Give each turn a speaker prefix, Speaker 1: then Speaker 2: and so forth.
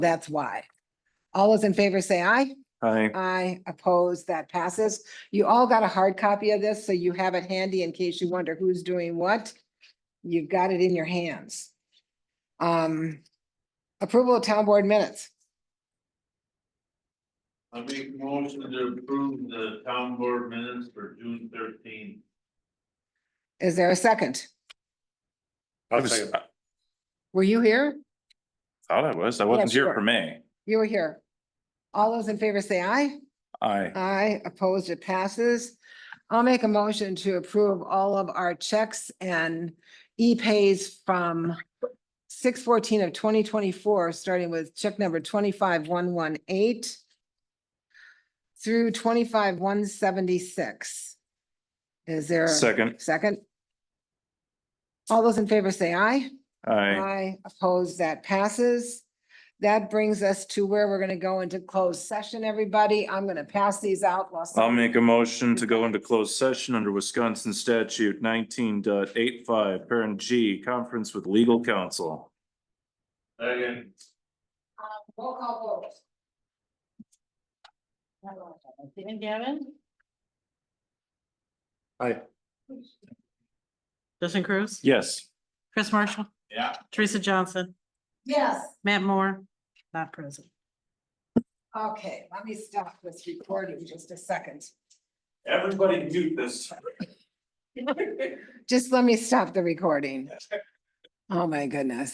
Speaker 1: That's why. All those in favor say aye.
Speaker 2: Aye.
Speaker 1: Aye, opposed, that passes. You all got a hard copy of this, so you have it handy in case you wonder who's doing what. You've got it in your hands. Um, approval of town board minutes.
Speaker 3: I make motion to approve the town board minutes for June thirteenth.
Speaker 1: Is there a second?
Speaker 2: I
Speaker 4: I'll
Speaker 2: was,
Speaker 4: second.
Speaker 2: I
Speaker 1: Were you here?
Speaker 2: thought I was. I wasn't here
Speaker 1: sure.
Speaker 2: for May.
Speaker 1: You were here. All those in favor say aye.
Speaker 2: Aye.
Speaker 1: Aye, opposed, it passes. I'll make a motion to approve all of our checks and e-pays from six fourteen of twenty twenty-four, starting with check number twenty-five one one eight through twenty-five one seventy-six. Is there a
Speaker 2: Second.
Speaker 1: second? All those in favor say aye.
Speaker 2: Aye.
Speaker 1: I oppose that passes. That brings us to where we're gonna go into closed session, everybody. I'm gonna pass these out. while
Speaker 2: I'll
Speaker 1: some-
Speaker 2: make a motion to go into closed session under Wisconsin statute 19.85, parent G, conference with legal counsel.
Speaker 3: Second,
Speaker 1: Uh, Roll call vote.
Speaker 5: Stephen Gavin,
Speaker 2: Aye.
Speaker 5: Justin Cruz,
Speaker 2: Yes.
Speaker 5: Chris Marshall,
Speaker 3: yeah.
Speaker 5: Teresa Johnson,
Speaker 1: Yes,
Speaker 5: Matt Moore, not present.
Speaker 1: okay, let me stop this recording just a second.
Speaker 2: Everybody mute this.
Speaker 1: Just let me stop the recording. Oh, my goodness.